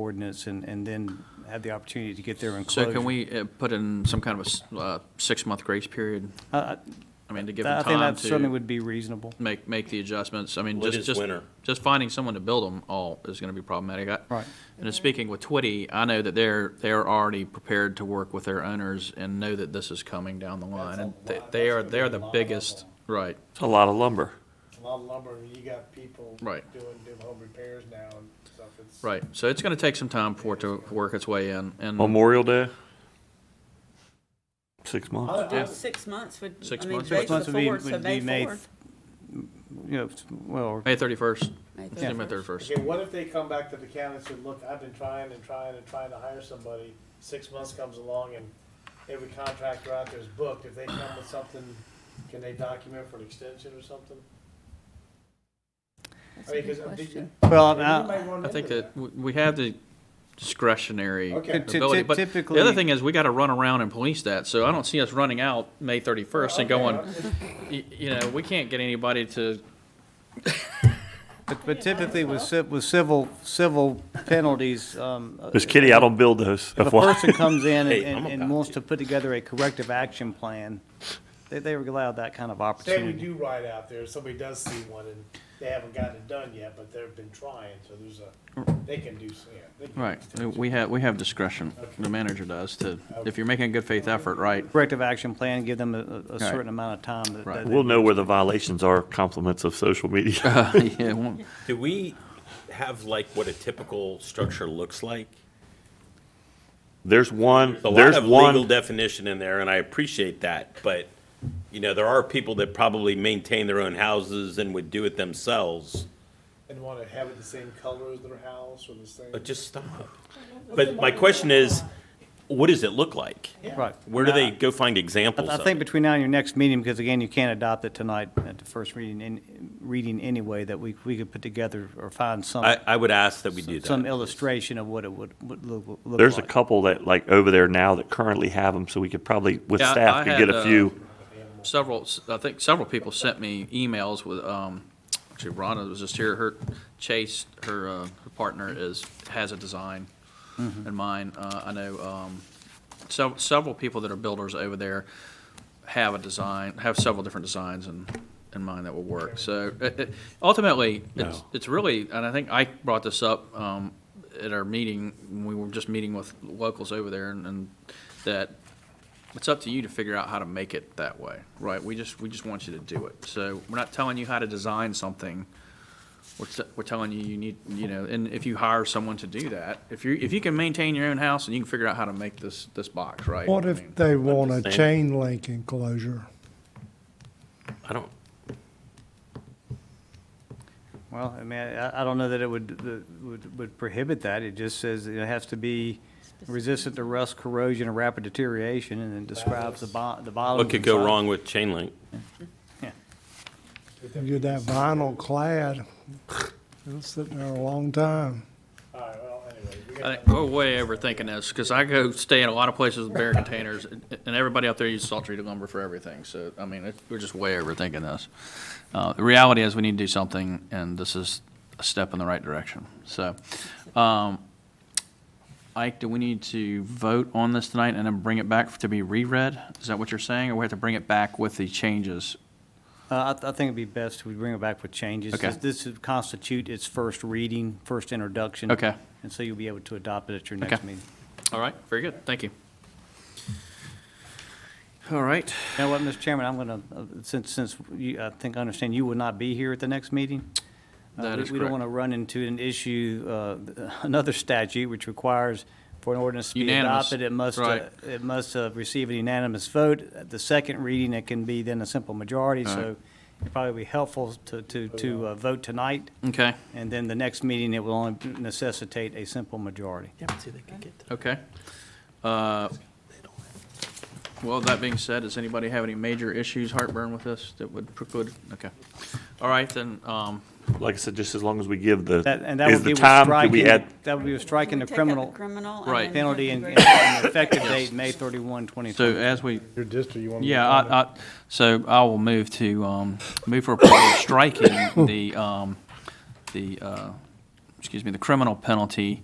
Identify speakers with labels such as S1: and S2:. S1: ordinance and, and then have the opportunity to get their enclosure.
S2: So can we uh, put in some kind of a s- uh, six-month grace period?
S1: I- I
S2: I mean, to give
S1: I
S2: them
S1: think
S2: time
S1: that certainly
S2: to
S1: would be reasonable.
S2: make, make the adjustments. I mean,
S3: Well, it
S2: just,
S3: is
S2: just,
S3: winter.
S2: just finding someone to build them all is going to be problematic. I-
S1: Right.
S2: And in speaking with Twitty, I know that they're, they're already prepared to work with their owners and know that this is coming down the line. And they- they are, they're the biggest, right,
S4: It's a lot of lumber.
S5: A lot of lumber, and you got people
S2: Right.
S5: doing, doing home repairs now and stuff. It's
S2: right. So it's going to take some time for it to work its way in. And
S4: Memorial Day? Six months.
S2: Yeah.
S6: Oh, Six months would,
S2: Six
S6: I mean,
S2: months.
S6: today's
S2: Six
S6: the
S1: months would be-
S6: fourth, so
S1: would be
S6: May
S1: May
S6: fourth.
S1: You know, well,
S2: May 31st,
S6: May
S2: Tuesday, May
S6: 31st.
S2: 31st.
S5: Okay, what if they come back to the county and said, look, I've been trying and trying and trying to hire somebody, six months comes along and every contractor out there is booked, if they come with something, can they document for an extension or something? I mean, 'cause I think-
S1: well,
S5: You
S1: now,
S5: might run
S2: I think
S5: into
S2: that w- we have the discretionary
S5: Okay.
S1: Ty- ty-
S2: ability, but the
S1: typically-
S2: other thing is, we gotta run around and police that, so I don't see us running out May thirty-first and going, y- you know, we can't get anybody to,
S1: but- but typically with civ, with civil, civil penalties, um. uh,
S4: Miss Kitty, I don't build those.
S1: If a
S4: FYI.
S1: person comes in and-
S3: Hey,
S1: and,
S3: I'm
S1: and
S3: about
S1: wants to put together a corrective action plan, they, they were allowed that kind of
S5: Say we
S1: opportunity.
S5: do ride out there, somebody does see one and they haven't gotten it done yet, but they've been trying, so there's a, they can do, yeah. they can do
S2: right,
S5: extension.
S2: we have, we have discretion, the manager does, to, if you're making a good faith effort, right?
S1: Corrective action plan, give them a- a, a certain amount of time that-
S2: Right.
S1: that. they-
S4: We'll know where the violations are, compliments of social media.
S2: Yeah, it won't-
S3: Do we have like what a typical structure looks like?
S4: There's one,
S3: There's a lot
S4: there's
S3: of legal
S4: one,
S3: definition in there, and I appreciate that, but, you know, there are people that probably maintain their own houses and would do it themselves,
S5: And wanna have it the same color as their house or the same.
S3: but just stop. But my question is, what does it look like?
S1: Right.
S3: Where do
S1: Now,
S3: they go find examples
S1: I- I
S3: of
S1: think
S3: it?
S1: between now and your next meeting, because again, you can't adopt it tonight at the first reading, in, reading anyway, that we, we could put together or find some,
S3: I, I would ask that we do
S1: some
S3: that.
S1: illustration of what it would, would look, look like.
S4: there's a couple that, like, over there now that currently have them, so we could probably, with
S2: Yeah, I- I
S4: staff, could get
S2: had,
S4: a
S2: uh,
S4: few.
S2: several, I think several people sent me emails with, um, actually Rhonda was just here, her, Chase, her, uh, her partner is, has a design in mind. Uh, I know, um, so, several people that are builders over there have a design, have several different designs in, in mind that will work. So it- it- ultimately, it's,
S3: No.
S2: it's really, and I think Ike brought this up um, at our meeting, when we were just meeting with locals over there, and- and that it's up to you to figure out how to make it that way, right? We just, we just want you to do it. So we're not telling you how to design something. We're, t- we're telling you, you need, you know, and if you hire someone to do that, if you, if you can maintain your own house and you can figure out how to make this, this box, right?
S7: What
S2: I
S7: if
S2: mean,
S7: they want a
S3: understand.
S7: chain link enclosure?
S3: I don't,
S1: Well, I mean, I, I don't know that it would, that would, would prohibit that. It just says it has to be resistant to rust, corrosion, and rapid deterioration, and then describes the bo, the bottom.
S3: what could go wrong with chain link?
S7: You get that vinyl clad, it'll sit there a long time.
S5: Alright, well, anyway, we
S2: I
S5: got.
S2: think we're way overthinking this, because I go stay in a lot of places with bare containers, and and everybody out there uses salt treated lumber for everything, so, I mean, it- we're just way overthinking this. Uh, the reality is, we need to do something, and this is a step in the right direction, so. Um, Ike, do we need to vote on this tonight and then bring it back to be reread? Is that what you're saying, or we have to bring it back with the changes?
S1: Uh, I, I think it'd be best if we bring it back with changes.
S2: Okay.
S1: This would constitute its first reading, first introduction.
S2: Okay.
S1: And so you'll be able to adopt it at your
S2: Okay.
S1: next meeting.
S2: All right, very good, thank you. All right,
S1: You know what, Mr. Chairman, I'm gonna, uh, since, since you, I think I understand you will not be here at the next meeting. uh,
S2: That
S1: we-
S2: is
S1: We don't
S2: correct.
S1: wanna run into an issue, uh, another statute which requires for an ordinance to be
S2: Unanimous,
S1: adopted, it must, uh,
S2: right.
S1: it must uh, receive a unanimous vote. At the second reading, it can be then a simple majority, so it'd probably be helpful to, to, to uh, vote tonight,
S2: okay,
S1: and then the next meeting, it will only necessitate a simple majority.
S2: okay. Uh, Well, that being said, does anybody have any major issues, heartburn with this that would preclude? Okay. All right, then, um,
S4: Like I said, just as long as we give the,
S1: That, and that
S4: is
S1: would be with
S4: the time, do we
S1: striking,
S4: add,
S1: that would be with striking the
S6: Take out
S1: criminal
S6: Criminal.
S2: Right.
S6: and then
S1: penalty and
S6: integrate.
S1: and effective date, May 31, 2020.
S2: so as we,
S5: Your district, you want
S2: yeah, I, I, so I will move to, um, move for approval of striking the, um, the, uh, excuse me, the criminal penalty